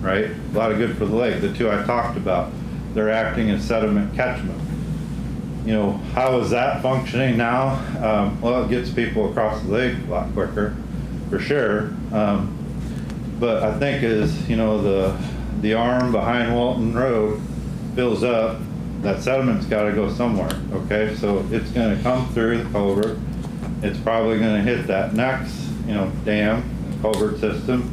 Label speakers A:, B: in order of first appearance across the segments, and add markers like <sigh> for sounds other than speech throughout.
A: right? A lot of good for the lake. The two I talked about, they're acting as sediment catchment. You know, how is that functioning now? Um, well, it gets people across the lake a lot quicker, for sure. Um, but I think as, you know, the, the arm behind Walton Road fills up, that sediment's gotta go somewhere, okay? So it's gonna come through the culvert. It's probably gonna hit that next, you know, dam, culvert system.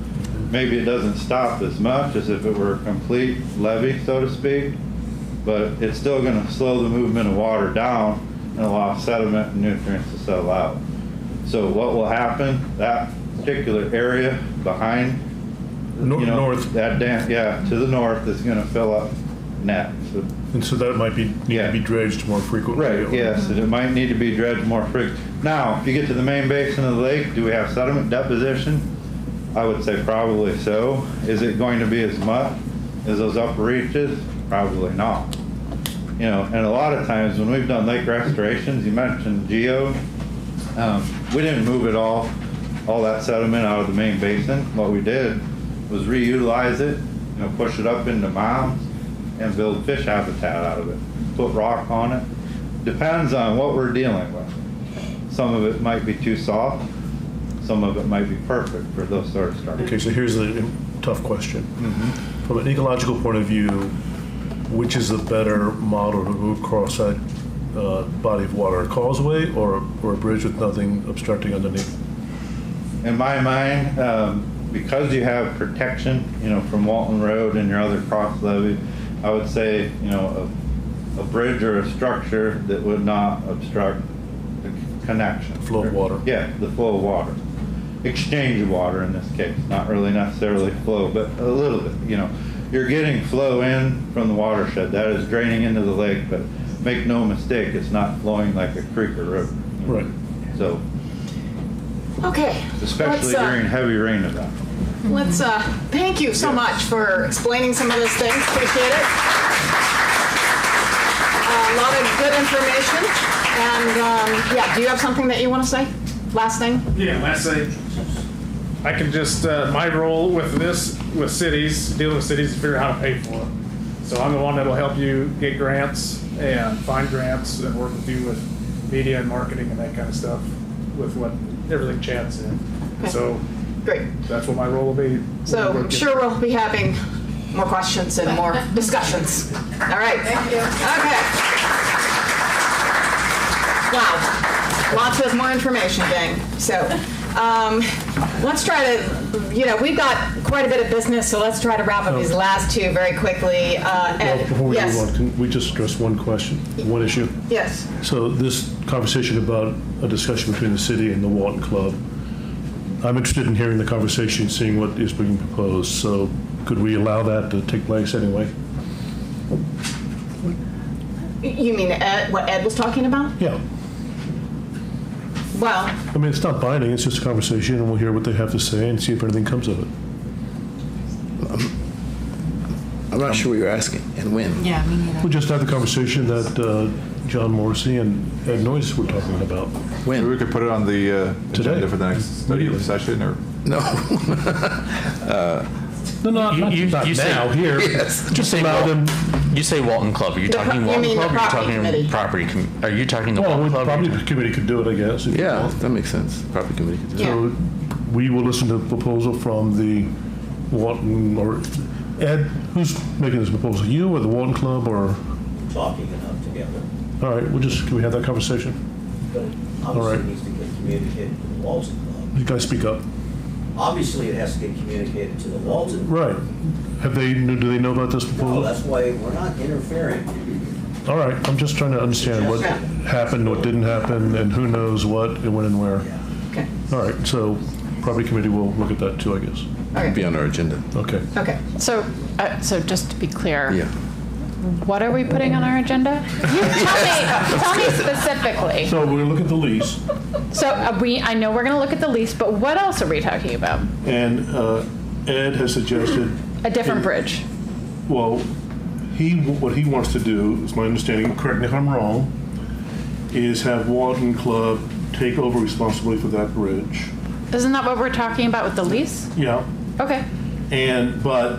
A: Maybe it doesn't stop as much as if it were a complete levee, so to speak, but it's still gonna slow the movement of water down and allow sediment and nutrients to settle out. So what will happen, that particular area behind
B: Nor-
A: you know,
B: North,
A: That dam, yeah, to the north is gonna fill up next.
B: and so that might be, need
A: Yeah.
B: to be dredged more frequently.
A: Right,
B: or-
A: yes, and it might need to be dredged more frequently. Now, if you get to the main basin of the lake, do we have sediment deposition? I would say probably so. Is it going to be as much as those upper reaches? Probably not. You know, and a lot of times when we've done lake restorations, you mentioned geo, um, we didn't move it all, all that sediment out of the main basin. What we did was reutilize it, you know, push it up into mounds and build fish habitat out of it. Put rock on it. Depends on what we're dealing with. Some of it might be too soft, some of it might be perfect for those sort of structures.
B: Okay, so here's the tough question.
A: Mm-hmm.
B: From an ecological point of view, which is the better model to move across that uh, body of water? A causeway or, or a bridge with nothing obstructing underneath?
A: in my mind, um, because you have protection, you know, from Walton Road and your other cross levee, I would say, you know, a, a bridge or a structure that would not obstruct the c- connection.
B: Flow of water.
A: Yeah, the flow of water. Exchange of water in this case, not really necessarily flow, but a little bit, you know. You're getting flow in from the watershed, that is draining into the lake, but make no mistake, it's not flowing like a creek or river.
B: Right.
A: So,
C: Okay.
A: especially
C: let's, uh,
A: during heavy rain events.
C: Let's, uh, thank you so much for explaining some of those things. Appreciate it. A lot of good information. And, um, yeah, do you have something that you want to say? Last thing?
D: Yeah, last thing. I can just, uh, my role with this, with cities, dealing with cities, is figure out how to pay for it. So I'm the one that'll help you get grants and find grants and work with you with media and marketing and that kind of stuff with what, everything Chad said. So
C: Great.
D: that's what my role will be.
C: So I'm sure we'll be having more questions and more discussions. All right. Thank you. Okay. Wow. Lots of more information, gang. So um, let's try to, you know, we've got quite a bit of business, so let's try to wrap up these last two very quickly. Uh,
B: Oh. Well,
C: and
B: Before we
C: yes,
B: move on, can we just address one question, one issue?
C: yes.
B: So this conversation about a discussion between the city and the Walton Club, I'm interested in hearing the conversation, seeing what is being proposed. So could we allow that to take place anyway?
C: You mean Ed, what Ed was talking about?
B: Yeah.
C: Well,
B: I mean, it's not binding, it's just a conversation, and we'll hear what they have to say and see if anything comes of it.
E: I'm not sure what you're asking and when.
F: Yeah, me neither.
B: We just had the conversation that uh, John Morrissey and Ed Noyce were talking about.
G: Maybe we
E: When?
G: could put it on the uh,
B: Today.
G: agenda for the next study
B: Immediately.
G: session, or
E: No.
B: No, not,
H: You-
B: not
H: you-
B: not
H: you say-
B: now, here.
E: Yes.
B: Just
H: <laughs>
B: allow them,
H: You say Walton Club. Are you
C: The pro-
H: talking
C: you
H: Walton
C: mean the
H: Club? or
C: property
H: Are
C: committee?
H: you talking property com- Are you talking the
B: well,
H: Walton
B: the
H: Club?
B: property committee could do it, I guess. if you
E: Yeah,
B: want.
E: that makes sense. Property committee could do
C: Yeah.
E: it.
B: So we will listen to the proposal from the Walton, or Ed, who's making this proposal? You or the Walton Club or,
I: talking enough together.
B: all right, we'll just, can we have that conversation?
I: But it
B: right.
I: obviously needs to get communicated to the Walton Club.
B: You guys speak up.
I: Obviously, it has to get communicated to the Walton.
B: Right. Have they, do they know about this
I: Well,
B: proposal?
I: that's why we're not interfering.
B: All right, I'm just trying to understand what happened, what didn't happen, and who knows what, and when and where.
C: okay.
B: All right, so property committee will look at that too, I guess.
E: Be on our agenda.
B: Okay.
C: Okay.
F: So, uh, so just to be clear,
E: Yeah.
F: what are we putting on our agenda? You tell me, tell me specifically.
B: So we're gonna look at the lease,
F: So uh, we, I know we're gonna look at the lease, but what else are we talking about?
B: and uh, Ed has suggested,
F: A different bridge.
B: well, he, what he wants to do, is my understanding, correct me if I'm wrong, is have Walton Club take over responsibility for that bridge.
F: Isn't that what we're talking about with the lease?
B: Yeah,
F: Okay.
B: and, but